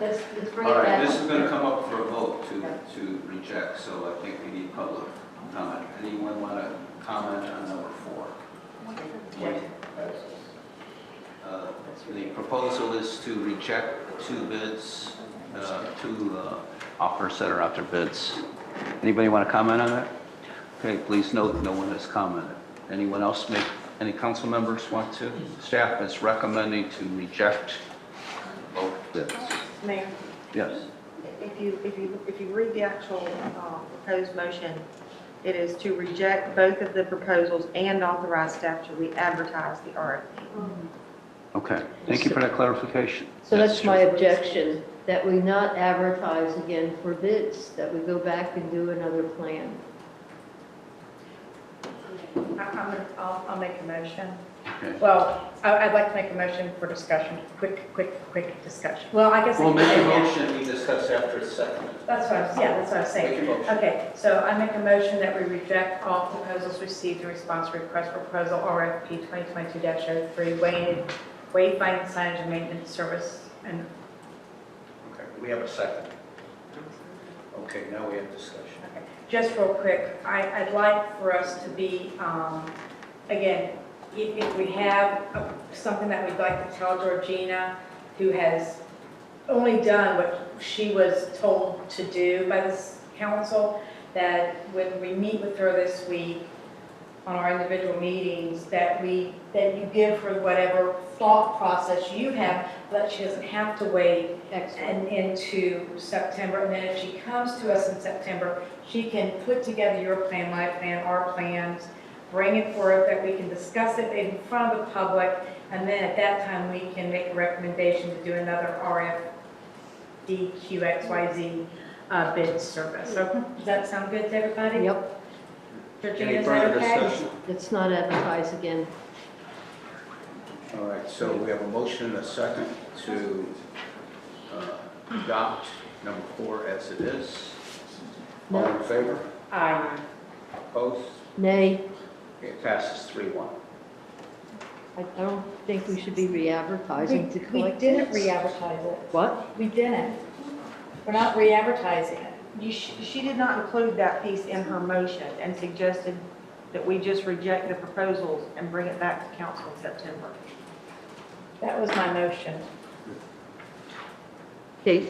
let's, let's bring it All right, back. this is going to come up for a vote to, Yeah. to reject, so I think we need public comment. Anyone want to comment on number four? Reject proposals. Uh, The proposal is to reject two bids, uh, two uh, offers that are out there bids. Anybody want to comment on that? Okay, please note, no one has commented. Anyone else make, any council members want to? Staff is recommending to reject both bids. Mayor, Yes. if you, if you, if you read the actual uh, proposed motion, it is to reject both of the proposals and authorize staff to re-advertise the RFP. Okay, thank you for that clarification. So that's my objection, that we not advertise again for bids, that we go back and do another plan. I'll, I'll make a motion. Okay. Well, I- I'd like to make a motion for discussion, quick, quick, quick discussion. Well, I guess. I Well, can make a say now. motion, we discuss after it's seconded. That's what I was, yeah, that's what I was saying. Make a motion. Okay, so I make a motion that we reject all proposals received in response to request for proposal RFP 2022-03, waiting, wayfinding signage and maintenance service. And, Okay, we have a second. Okay, now we have discussion. okay. just real quick, I, I'd like for us to be, um, again, if, if we have a- something that we'd like to tell Georgina, who has only done what she was told to do by this council, that when we meet with her this week on our individual meetings, that we, that you give her whatever thought process you have, that she doesn't have to wait Excellent. and into September, and then if she comes to us in September, she can put together your plan, my plan, our plans, bring it forth, that we can discuss it in front of the public, and then at that time, we can make a recommendation to do another RFDQXYZ uh, bid service. So, does that sound good to everybody? Yep, Georgina, Any is that further okay? discussion? let's not advertise again. All right, so we have a motion and a second to uh, adopt number four as it is. All in favor? Aye. Opposed? Nay, It passes three one. I don't think we should be re-advertising to We collect. didn't bids. re-advertise it. What? We didn't. We're not re-advertising it. You, sh- she did not include that piece in her motion and suggested that we just reject the proposals and bring it back to council in September. That was my motion. Okay,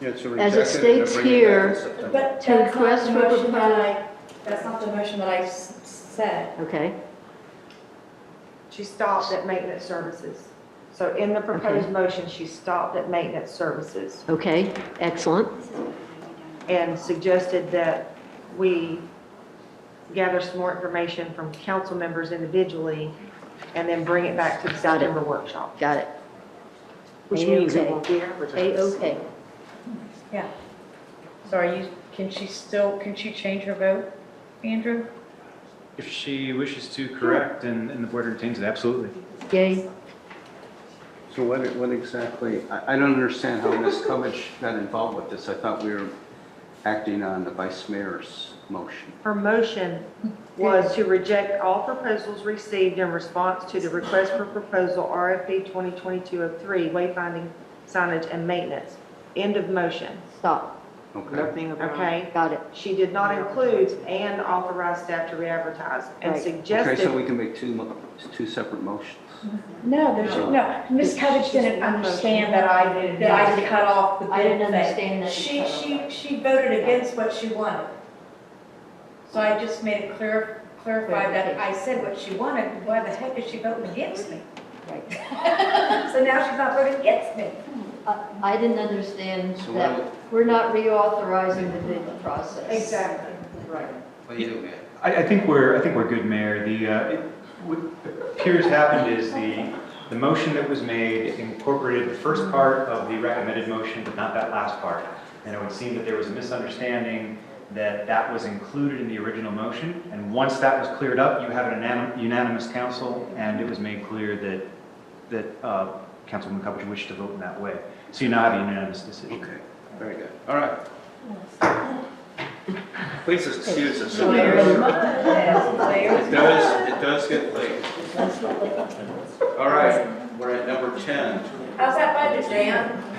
Yeah, it's a As it rejection and a states bringing back in here- September. But To that's not the request for motion that proposal. I, that's not the motion that I s- said. okay, She stopped at maintenance services. So in the proposed Okay. motion, she stopped at maintenance services okay, excellent. and suggested that we gather some more information from council members individually and then bring it back to the Got it. September workshop, Got it. which means it A-okay. will be advertised. A-okay. So are you, can she still, can she change her vote, Andrew? If she wishes to correct and, and the board entertains it, absolutely. Yay, So what, what exactly, I, I don't understand how Ms. Kovich got involved with this. I thought we were acting on the vice mayor's motion. Her motion was to reject all proposals received in response to the request for proposal RFP 2022-03, wayfinding signage and maintenance. End of motion, stop, Okay. okay? got it. She did not include and authorize staff to re-advertise and Right. Okay, so suggested, we can make two, mo- two separate motions. No, there's, no, Ms. Covich didn't understand that I, that I cut off the bid I didn't thing. understand that you She, cut off she, that. she voted against what she wanted. So I just made it clear, clarify that I said what she wanted, why the heck is she voting against me? Right. So now she's not voting against me. I I didn't understand So that we're not reauthorizing the bid process. Right. What do you do, man? I, I think we're, I think we're good, Mayor. The, uh, it- what appears happened is the, the motion that was made incorporated the first part of the recommended motion, but not that last part. And it would seem that there was a misunderstanding that that was included in the original motion. And once that was cleared up, you had an unanim- unanimous council, and it was made clear that, that uh, Councilwoman Covich wished to vote in that way. So you now have a unanimous decision. Okay, very good. All right. Please excuse us. It does, it does get late. All right, we're at number 10. How's that budget, Dan?